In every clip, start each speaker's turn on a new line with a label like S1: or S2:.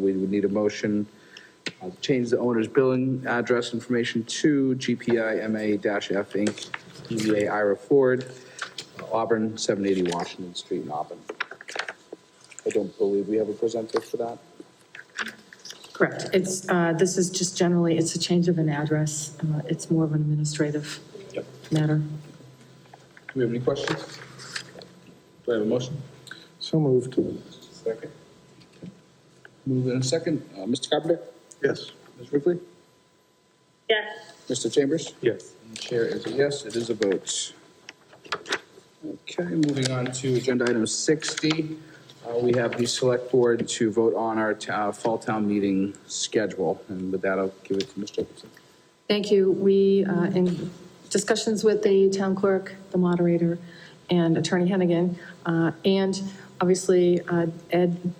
S1: We would need a motion uh, to change the owner's billing address information to GPI MA-F Inc., DBA Ira Ford, uh, Auburn, 780 Washington Street in Auburn. I don't believe we have a presenter for that.
S2: Correct. It's, uh, this is just generally, it's a change of an address. Uh, It's more of an administrative
S3: Yep.
S2: matter.
S3: Do we have any questions? Do I have a motion?
S4: So moved.
S3: Second.
S1: Move in a second. Uh, Mr. Carpenter?
S4: Yes.
S1: Ms. Ruffey?
S5: Yes,
S1: Mr. Chambers?
S4: Yes.
S1: Chair is a yes, it is a vote. Okay, moving on to agenda item 60. Uh, We have the select board to vote on our t- uh, fall town meeting schedule, and with that, I'll give it to Ms. Jacobson.
S2: Thank you. We, uh, in discussions with the town clerk, the moderator, and Attorney Hennigan, uh, and obviously uh, Ed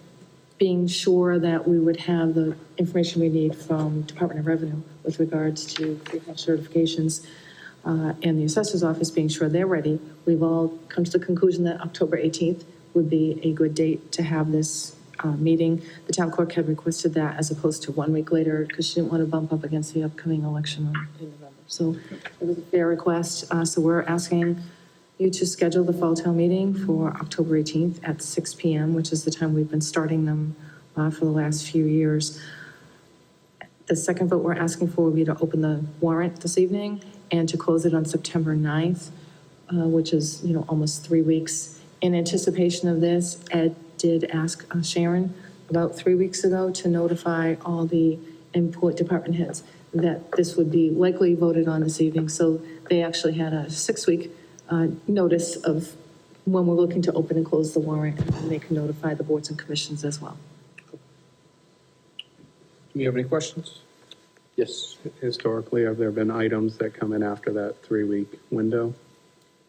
S2: being sure that we would have the information we need from Department of Revenue with regards to pre-health certifications, uh, and the assessor's office being sure they're ready, we've all come to the conclusion that October 18th would be a good date to have this uh, meeting. The town clerk had requested that as opposed to one week later because she didn't want to bump up against the upcoming election in November. So it was a fair request, uh, so we're asking you to schedule the fall town meeting for October 18th at 6 PM, which is the time we've been starting them uh, for the last few years. The second vote we're asking for will be to open the warrant this evening and to close it on September 9th, uh, which is, you know, almost three weeks. In anticipation of this, Ed did ask uh, Sharon about three weeks ago to notify all the import department heads that this would be likely voted on this evening. So they actually had a six-week uh, notice of when we're looking to open and close the warrant, and they can notify the boards and commissions as well.
S1: Do we have any questions? Yes.
S4: Historically, have there been items that come in after that three-week window?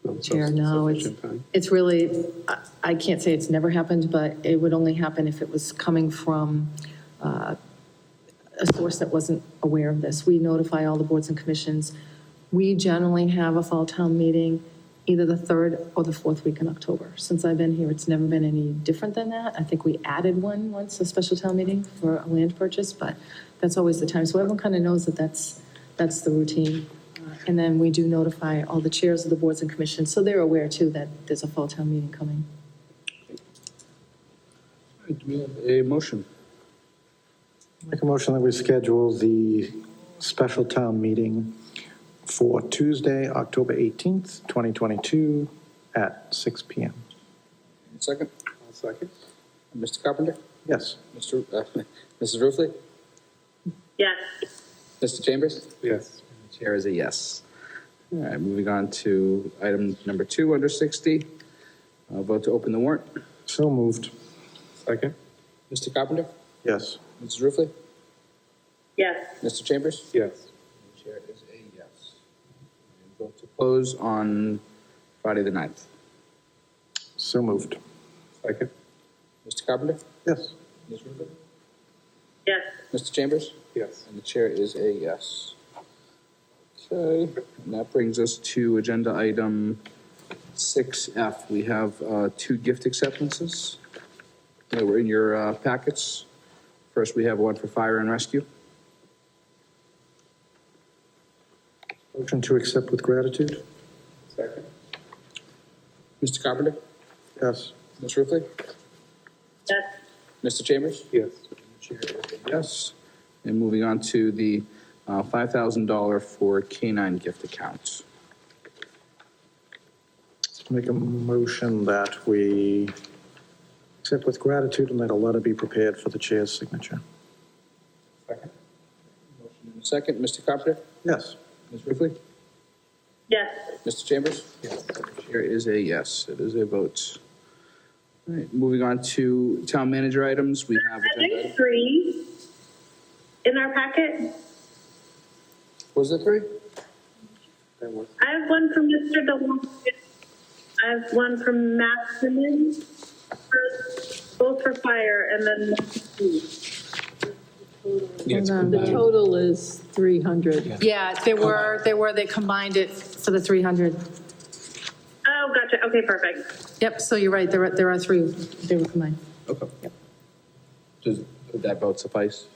S4: Um,
S2: Chair, no, it's,
S4: Sufficient time.
S2: it's really, I- I can't say it's never happened, but it would only happen if it was coming from uh, a source that wasn't aware of this. We notify all the boards and commissions. We generally have a fall town meeting either the third or the fourth week in October. Since I've been here, it's never been any different than that. I think we added one once, a special town meeting for a land purchase, but that's always the time. So everyone kind of knows that that's, that's the routine. Uh, And then we do notify all the chairs of the boards and commissions, so they're aware too that there's a fall town meeting coming.
S1: Do we have a motion?
S6: Make a motion that we schedule the special town meeting for Tuesday, October 18th, 2022, at 6 PM.
S1: Second?
S4: I'll second.
S1: Mr. Carpenter?
S6: Yes.
S1: Mr. uh, Mrs. Ruffey?
S5: yes,
S1: Mr. Chambers?
S4: Yes.
S1: Chair is a yes. All right, moving on to item number two under 60. Uh, Vote to open the warrant.
S6: So moved.
S4: Second?
S1: Mr. Carpenter?
S6: Yes.
S1: Mrs. Ruffey?
S5: yes,
S1: Mr. Chambers?
S4: Yes.
S1: Chair is a yes. And Vote to close on Friday, the 9th.
S6: So moved.
S4: Second?
S1: Mr. Carpenter?
S6: Yes.
S1: Ms. Ruffey?
S5: yes,
S1: Mr. Chambers?
S4: Yes.
S1: And the chair is a yes. Okay, and that brings us to agenda item 6F. We have uh, two gift acceptances. They were in your uh, packets. First, we have one for fire and rescue.
S6: Motion to accept with gratitude?
S4: Second?
S1: Mr. Carpenter?
S6: Yes.
S1: Ms. Ruffey?
S5: yes,
S1: Mr. Chambers?
S4: Yes.
S1: Yes. And moving on to the uh, $5,000 for K-9 gift accounts.
S6: Make a motion that we accept with gratitude and let a letter be prepared for the chair's signature.
S4: Second?
S1: Second, Mr. Carpenter?
S6: Yes.
S1: Ms. Ruffey?
S5: yes,
S1: Mr. Chambers?
S4: Yes.
S1: Chair is a yes, it is a vote. All right, moving on to town manager items, we have agenda
S5: there's
S1: item.
S5: three in our packet.
S1: Was it three?
S4: That works.
S5: I have one from Mr. DeWong. I have one from Maximin, for- both for fire and then,
S2: Um, The total is 300. Yeah, they were, they were, they combined it for the 300.
S5: oh, gotcha, okay, perfect.
S2: Yep, so you're right, there are, there are three, they were combined.
S1: Okay.
S2: Yep.
S1: Does, Would that vote suffice?